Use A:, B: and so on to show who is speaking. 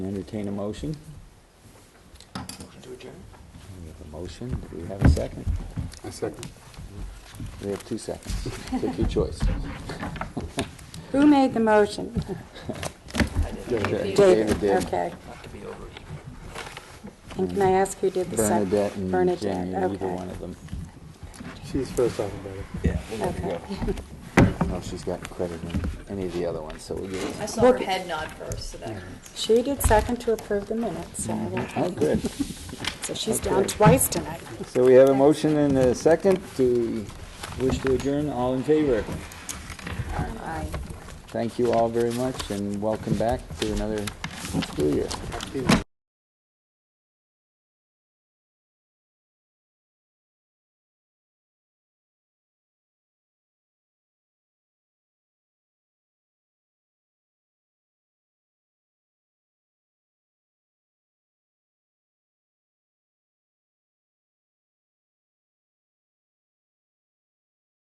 A: Entertain a motion.
B: Motion to adjourn?
A: We have a motion. Do we have a second?
B: A second.
A: We have two seconds. Take your choice.
C: Who made the motion?
A: Okay,
C: David,
A: did.
C: okay.
B: Not to be over.
C: And can I ask who did the second?
A: Bernadette and
C: Bernadette,
A: Jenny, either
C: okay.
A: one of them.
D: She's first alphabetic.
B: Yeah, we'll let it
C: Okay.
B: go.
A: I don't know if Oh, she's gotten credit in any of the other ones, so we'll give it.
E: I saw her
C: Look-
E: head nod first, so that.
C: She did second to approve the minutes, so I won't-
A: Oh, good.
C: so she's
A: okay.
C: down twice tonight.
A: So we have a motion and a second. to wish to adjourn? All in favor?
C: Aye.
A: Thank you all very much and welcome back to another school year.